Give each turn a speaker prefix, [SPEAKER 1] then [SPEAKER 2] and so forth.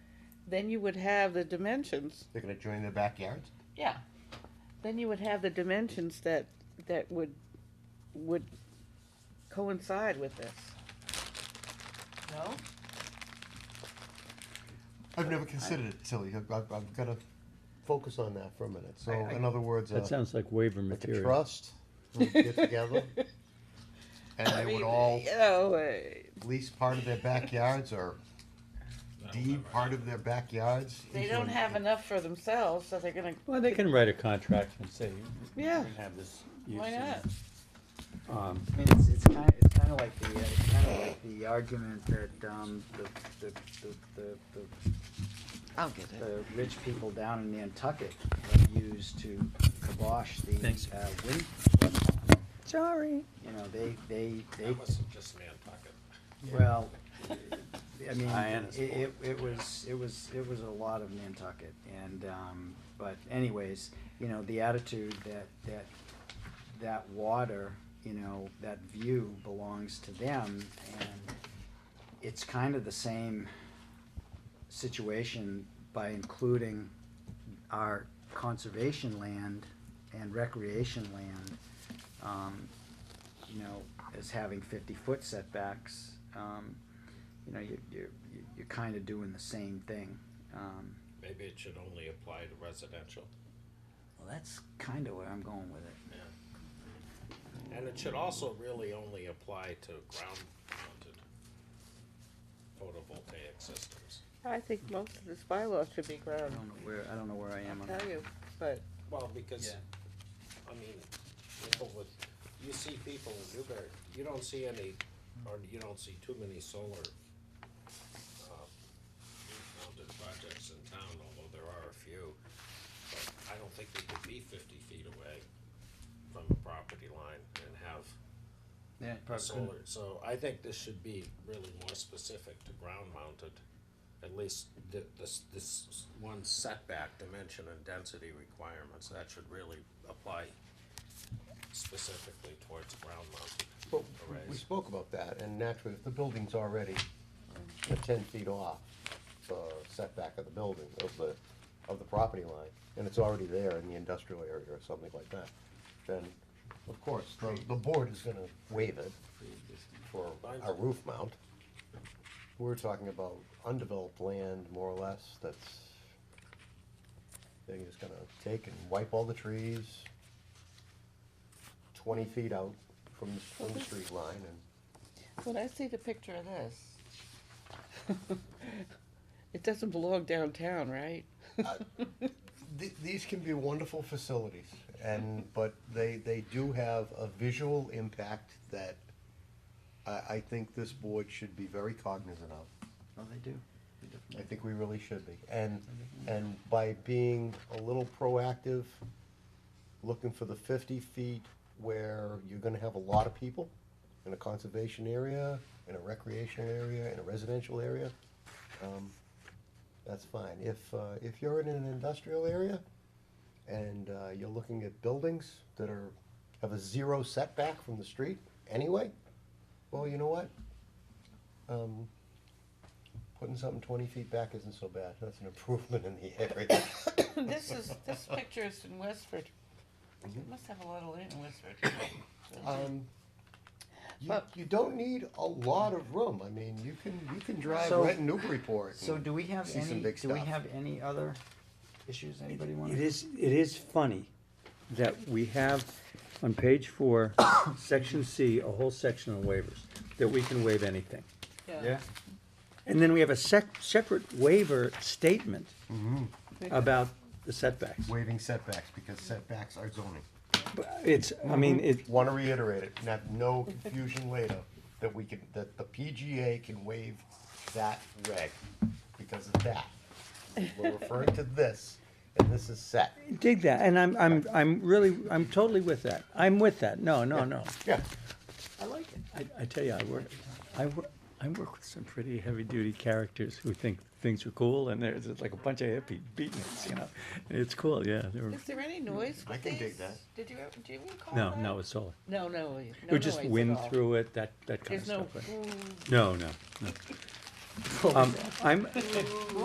[SPEAKER 1] then you would have the dimensions.
[SPEAKER 2] They're gonna join their backyards?
[SPEAKER 1] Yeah. Then you would have the dimensions that, that would, would coincide with this. No?
[SPEAKER 2] I've never considered it, Tilly, I've, I've, I've gotta focus on that for a minute, so
[SPEAKER 1] I- I-
[SPEAKER 2] in other words,
[SPEAKER 3] That
[SPEAKER 2] uh,
[SPEAKER 3] sounds like waiver
[SPEAKER 2] like a
[SPEAKER 3] material.
[SPEAKER 2] trust, would get together. And
[SPEAKER 1] I
[SPEAKER 2] they would
[SPEAKER 1] mean,
[SPEAKER 2] all
[SPEAKER 1] You know, uh,
[SPEAKER 2] lease part of their backyards or deed part of their backyards.
[SPEAKER 1] they
[SPEAKER 2] into
[SPEAKER 1] don't
[SPEAKER 2] an-
[SPEAKER 1] have enough for themselves, so they're gonna,
[SPEAKER 3] Well, they can write a contract and say, we
[SPEAKER 1] Yeah.
[SPEAKER 3] can have this use.
[SPEAKER 1] why not?
[SPEAKER 3] not? Um,
[SPEAKER 4] I mean, it's, it's kind of, it's kind of like the, uh, it's kind of like the argument that, um, the, the, the, the, the,
[SPEAKER 1] I'll get
[SPEAKER 4] the rich people down in Nantucket have used to kibosh the,
[SPEAKER 3] Thanks.
[SPEAKER 4] uh, wind.
[SPEAKER 1] Sorry.
[SPEAKER 4] You know, they, they, they,
[SPEAKER 5] That wasn't just Nantucket.
[SPEAKER 4] well, I mean,
[SPEAKER 3] Hyannis
[SPEAKER 4] it, it, it was, it was, it was a lot of Nantucket and, um, but anyways, you know, the attitude that, that, that water, you know, that view belongs to them and it's kind of the same situation by including our conservation land and recreation land, um, you know, as having fifty-foot setbacks, um, you know, you, you, you- you're kind of doing the same thing. Um,
[SPEAKER 5] Maybe it should only apply to residential.
[SPEAKER 4] well, that's kind of where I'm going with it.
[SPEAKER 5] And it should also really only apply to ground mounted photovoltaic systems.
[SPEAKER 1] I think most of this bylaw should be
[SPEAKER 4] I
[SPEAKER 1] ground,
[SPEAKER 4] don't know where, I don't know where I am on
[SPEAKER 1] tell you, but,
[SPEAKER 5] Well, because,
[SPEAKER 4] Yeah.
[SPEAKER 5] I mean, people with, you see people in Newbury, you don't see any, or you don't see too many solar, uh, mounted projects in town, although there are a few. But I don't think they could be fifty feet away from the property line and have
[SPEAKER 4] Yeah,
[SPEAKER 5] solar. So I think this should be really more specific to ground mounted, at least th- this, this one setback dimension and density requirements, that should really apply specifically towards ground mounted.
[SPEAKER 2] But we
[SPEAKER 5] Arrays.
[SPEAKER 2] spoke about that, and naturally, if the building's already uh, ten feet off the uh, setback of the building, of the, of the property line, and it's already there in the industrial area or something like that, then, of course, the, the board is gonna waive it for a roof mount. We're talking about undeveloped land, more or less, that's, they're just gonna take and wipe all the trees twenty feet out from, the- from the street line and
[SPEAKER 1] when I see the picture of this. It doesn't belong downtown, right?
[SPEAKER 2] Th- These can be wonderful facilities, and, but they, they do have a visual impact that I, I think this board should be very cognizant of.
[SPEAKER 4] Oh, they do. They
[SPEAKER 2] I
[SPEAKER 4] definitely-
[SPEAKER 2] think we really should be. And, and by being a little proactive, looking for the fifty feet where you're gonna have a lot of people in a conservation area, in a recreational area, in a residential area, um, that's fine. If, uh, if you're in an industrial area and, uh, you're looking at buildings that are, have a zero setback from the street anyway, well, you know what? Um, Putting something twenty feet back isn't so bad, that's an improvement in the area.
[SPEAKER 1] This is, this picture is in Westford. It
[SPEAKER 2] Mm-hmm.
[SPEAKER 1] must have a lot of land in Westford.
[SPEAKER 2] Um, You,
[SPEAKER 1] But-
[SPEAKER 2] you don't need a lot of room, I mean, you can, you can drive
[SPEAKER 4] So-
[SPEAKER 2] right in Newburyport.
[SPEAKER 4] So
[SPEAKER 2] and
[SPEAKER 4] do we have
[SPEAKER 2] see some
[SPEAKER 4] any,
[SPEAKER 2] big
[SPEAKER 4] do we
[SPEAKER 2] stuff.
[SPEAKER 4] have any other issues anybody want?
[SPEAKER 3] It is, it is funny that we have on page four, section C, a whole section on waivers, that we can waive anything.
[SPEAKER 4] Yeah,
[SPEAKER 3] And then we have a sec- separate waiver statement
[SPEAKER 1] Mm-hmm.
[SPEAKER 3] about the setbacks.
[SPEAKER 2] Waiving setbacks, because setbacks are zoning.
[SPEAKER 3] But It's, I mean,
[SPEAKER 2] Mm-hmm.
[SPEAKER 3] it,
[SPEAKER 2] Wanna reiterate it, and have no confusion later, that we can, that the PGA can waive that reg because of that. We're referring to this, and this is set.
[SPEAKER 3] dig that, and I'm, I'm, I'm really, I'm totally with that. I'm with that, no, no, no.
[SPEAKER 2] Yeah,
[SPEAKER 4] I like it.
[SPEAKER 3] I, I tell you, I work, I work, I work with some pretty heavy-duty characters who think things are cool, and there's just like a bunch of hippie beatniks, you know? And it's cool, yeah, they were,
[SPEAKER 1] Is there any noise
[SPEAKER 2] I
[SPEAKER 1] with
[SPEAKER 2] can dig
[SPEAKER 1] these?
[SPEAKER 2] that.
[SPEAKER 1] Did you, ever- do you recall
[SPEAKER 3] no,
[SPEAKER 1] that?
[SPEAKER 3] no, it's all,
[SPEAKER 1] No, no, no
[SPEAKER 3] it would just
[SPEAKER 1] noise at
[SPEAKER 3] wind
[SPEAKER 1] all.
[SPEAKER 3] through it, that, that kind of
[SPEAKER 1] There's no.
[SPEAKER 3] stuff. right? No, no, no. Um, I'm,